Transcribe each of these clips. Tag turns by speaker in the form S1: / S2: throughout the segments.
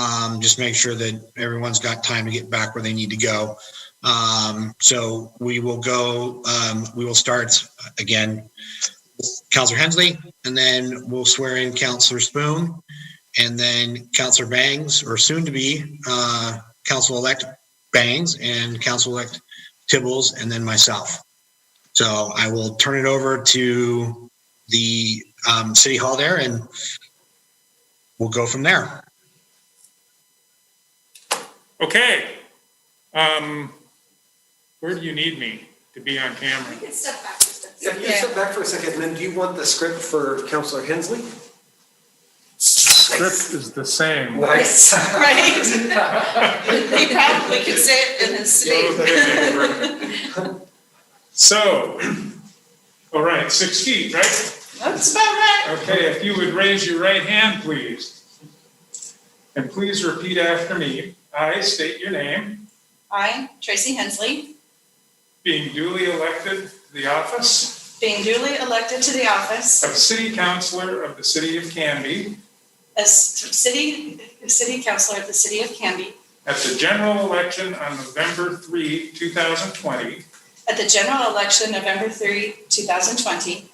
S1: Um, just make sure that everyone's got time to get back where they need to go. Um, so we will go, um, we will start again, Counselor Hensley, and then we'll swear in Counselor Spoon, and then Counselor Bangs, or soon to be, uh, Council-elect Bangs and Council-elect Tibbles, and then myself. So I will turn it over to the, um, City Hall there and we'll go from there.
S2: Okay. Um, where do you need me to be on camera?
S3: You can step back just a
S4: Yeah,
S3: second.
S4: can you step back for a second, and then do you want the script for Counselor Hensley?
S2: Script is the same.
S4: Nice.
S3: He probably could say it in his sleep.
S2: So, all right, six feet, right?
S3: That's about right.
S2: Okay, if you would raise your right hand, please. And please repeat after me. I state your name,
S3: I, Tracy Hensley,
S2: being duly elected to the office
S3: being duly elected to the office
S2: of City Councilor of the City of Canby
S3: as city, city councillor of the city of Canby
S2: at the general election on November 3, 2020,
S3: at the general election November 3, 2020,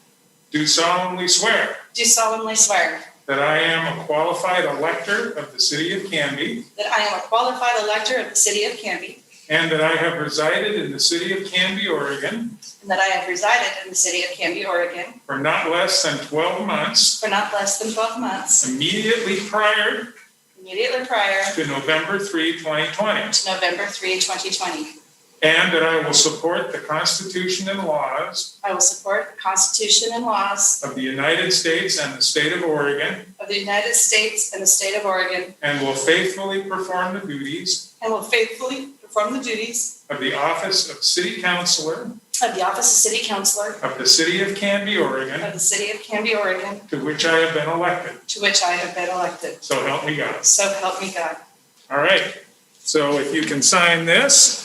S2: do solemnly swear
S3: do solemnly swear
S2: That I am a qualified elector of the city of Canby
S3: that I am a qualified elector of the city of Canby
S2: and that I have resided in the city of Canby, Oregon
S3: and that I have resided in the city of Canby, Oregon
S2: for not less than 12 months
S3: for not less than 12 months
S2: immediately prior
S3: immediately prior
S2: to November 3, 2020.
S3: to November 3, 2020.
S2: And that I will support the Constitution and laws
S3: I will support the Constitution and laws
S2: of the United States and the state of Oregon
S3: of the United States and the state of Oregon
S2: and will faithfully perform the duties
S3: and will faithfully perform the duties
S2: of the office of city councilor
S3: of the office of city councillor
S2: of the city of Canby, Oregon
S3: of the city of Canby, Oregon,
S2: to which I have been elected.
S3: to which I have been elected.
S2: So help me God.
S3: So help me God.
S2: All right, so if you can sign this.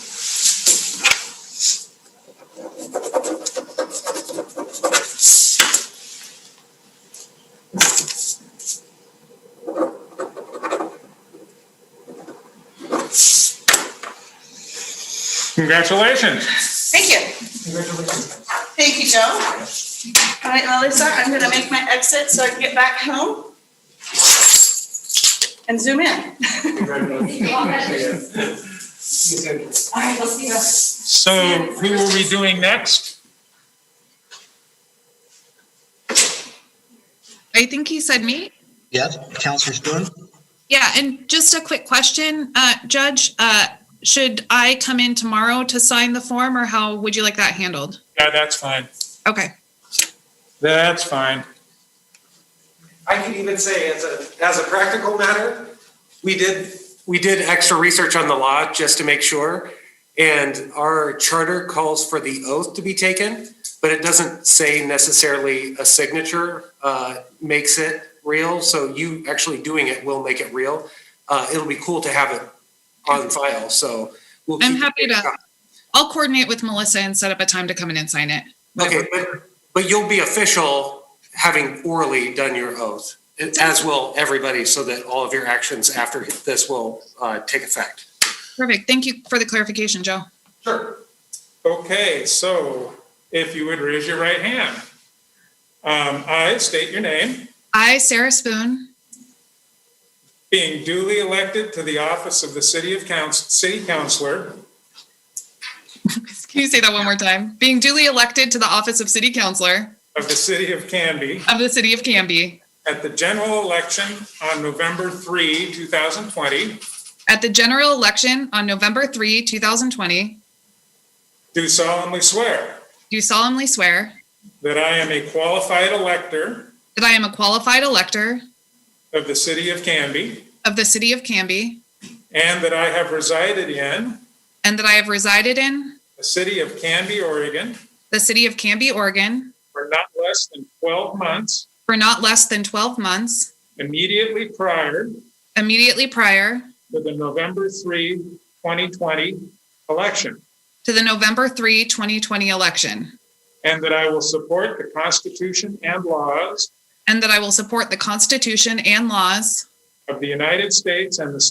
S2: Congratulations.
S3: Thank you. Thank you, Joe. All right, Melissa, I'm going to make my exit so I can get back home and zoom in. All right, we'll see you.
S2: So who are we doing next?
S5: I think he said me.
S1: Yes, Counselor Spoon?
S5: Yeah, and just a quick question, uh, Judge, uh, should I come in tomorrow to sign the form or how would you like that handled?
S2: Yeah, that's fine.
S5: Okay,
S2: That's fine.
S4: I could even say, as a, as a practical matter, we did, we did extra research on the law just to make sure. And our charter calls for the oath to be taken, but it doesn't say necessarily a signature uh, makes it real. So you actually doing it will make it real. Uh, It'll be cool to have it on file, so. we'll
S5: I'm
S4: keep-
S5: happy to, I'll coordinate with Melissa and set up a time to come in and sign it.
S4: Okay, but, but you'll be official having orally done your oath, as will everybody, so that all of your actions after this will uh, take effect.
S5: Perfect, thank you for the clarification, Joe.
S4: Sure.
S2: Okay, so if you would raise your right hand. Um, I state your name,
S5: I, Sarah Spoon,
S2: being duly elected to the office of the City of Council, City Councilor
S5: can you say that one more time? Being duly elected to the office of City Councilor
S2: of the City of Canby
S5: of the City of Canby
S2: at the general election on November 3, 2020,
S5: at the general election on November 3, 2020,
S2: do solemnly swear
S5: do solemnly swear
S2: that I am a qualified elector
S5: that I am a qualified elector
S2: of the City of Canby
S5: of the City of Canby
S2: and that I have resided in
S5: and that I have resided in
S2: the City of Canby, Oregon
S5: the city of Canby, Oregon
S2: for not less than 12 months
S5: for not less than 12 months
S2: immediately prior
S5: immediately prior
S2: for the November 3, 2020 election,
S5: to the November 3, 2020 election,
S2: and that I will support the Constitution and laws
S5: and that I will support the Constitution and laws
S2: of the United States and the